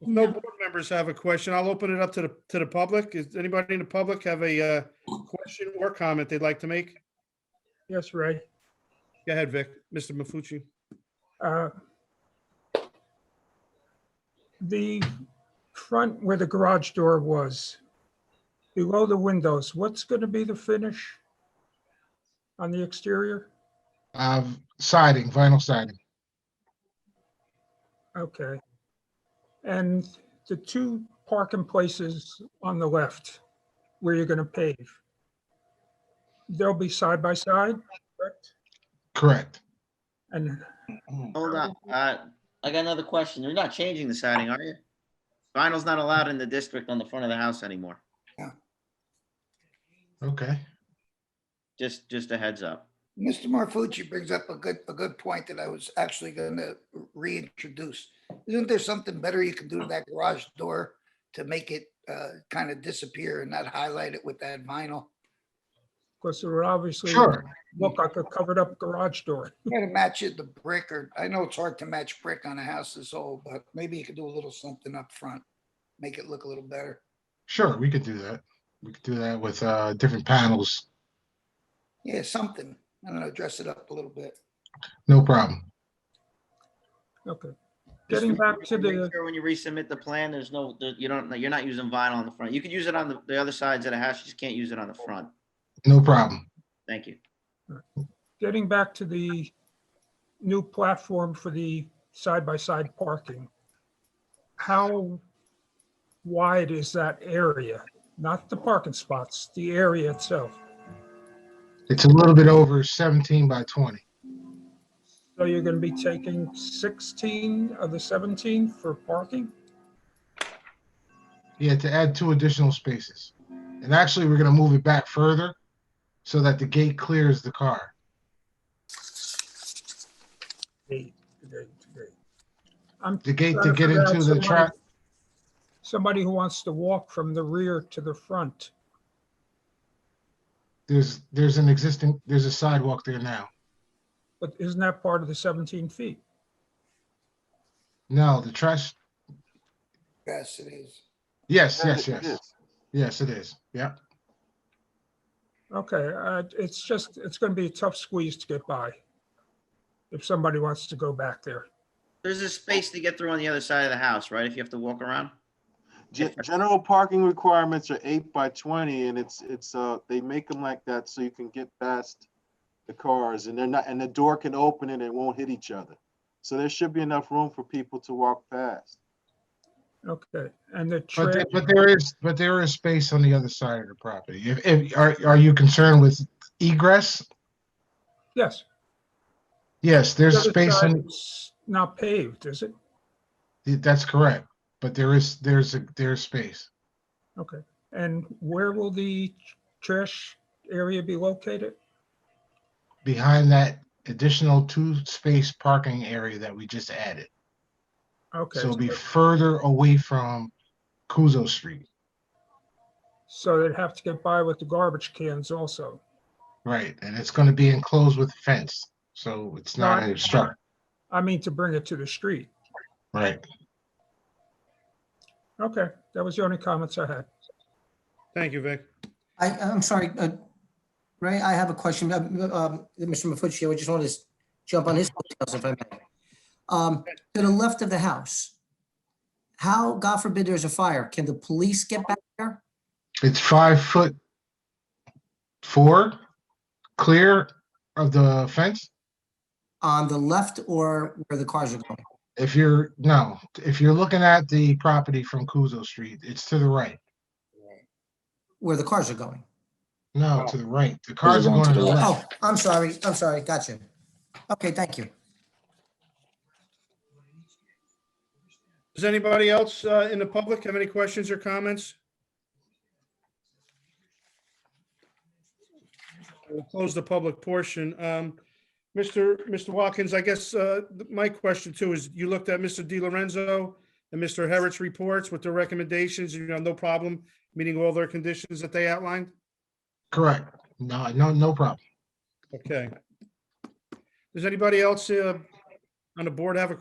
No board members have a question. I'll open it up to the, to the public. Is anybody in the public have a uh, question or comment they'd like to make? Yes, Ray. Go ahead, Vic, Mr. Mafucci. Uh, The front where the garage door was, below the windows, what's going to be the finish on the exterior? Uh, siding, vinyl siding. Okay. And the two parking places on the left where you're going to pave, they'll be side by side, correct? Correct. And Hold on, uh, I got another question. You're not changing the siding, are you? Vinyl's not allowed in the district on the front of the house anymore. Okay. Just, just a heads up. Mr. Marfucci brings up a good, a good point that I was actually gonna reintroduce. Isn't there something better you can do to that garage door to make it uh kind of disappear and not highlight it with that vinyl? because it would obviously Sure. look like a covered up garage door. Try to match it, the brick, or I know it's hard to match brick on a house this old, but maybe you could do a little something up front. Make it look a little better. Sure. We could do that. We could do that with uh, different panels. Yeah, something. I don't know, dress it up a little bit. No problem. Okay. Just Getting back make to the. sure When you resubmit the plan, there's no, there- you don't, you're not using vinyl on the front. You could use it on the, the other sides of the house, you just can't use it on the front. No problem. Thank you. getting back to the new platform for the side-by-side parking, how wide is that area? Not the parking spots, the area itself. It's a little bit over 17 by 20. So you're going to be taking 16 of the 17 for parking? Yeah, to add two additional spaces. And actually, we're going to move it back further so that the gate clears the car. Eight, eight, eight. I'm The gate to trying get figure out into the trap. somebody- Somebody who wants to walk from the rear to the front. There's there's an existing there's a sidewalk there now. But isn't that part of the 17 feet? No, the trash. Yes, it is. Yes, yes, yes, yes. It is. Yeah. Okay, uh, it's just, it's gonna be a tough squeeze to get by if somebody wants to go back there. There's a space to get through on the other side of the house, right? If you have to walk around? Ge- General parking requirements are eight by twenty and it's, it's, uh, they make them like that so you can get past the cars and they're not, and the door can open and it won't hit each other. So there should be enough room for people to walk past. Okay, and the But, trail, the- but there is, but there is space on the other side of the property. If, if, are, are you concerned with egress? yes. Yes, the there's other space side in, is Not paved, is it? that's correct, but there is, there's, a there's space. Okay, and where will the trash area be located? Behind that additional two-space parking area that we just added. Okay, So it'll be so- further away from Kuzo Street, so they'd have to get by with the garbage cans also. right? And it's gonna be enclosed with fence, so it's not Right. an obstruct, I mean, to bring it to the street. right? Okay, that was the only comments I had. Thank you, Vic. I, I'm sorry, uh, Ray, I have a question. Um, um, Mr. Mafucci, I just want to s- jump on his details if I may. Um, To the left of the house, how, God forbid, there's a fire, can the police get back there? It's five foot four, clear of the fence. On the left or where the cars are going? If you're, no, if you're looking at the property from Kuzo Street, it's to the right. Where the cars are going? No, to the right. The cars are Oh. going to the Oh, left. I'm sorry, I'm sorry, gotcha. Okay, thank you. Does anybody else uh, in the public have any questions or comments? We'll close the public portion. Um, Mr. Mr. Watkins, I guess uh, th- my question too is, you looked at Mr. Di Lorenzo and Mr. Herrick's reports with their recommendations, you know, no problem meeting all their conditions that they outlined? Correct. No, no, no problem. Okay. Does anybody else uh, on the board have a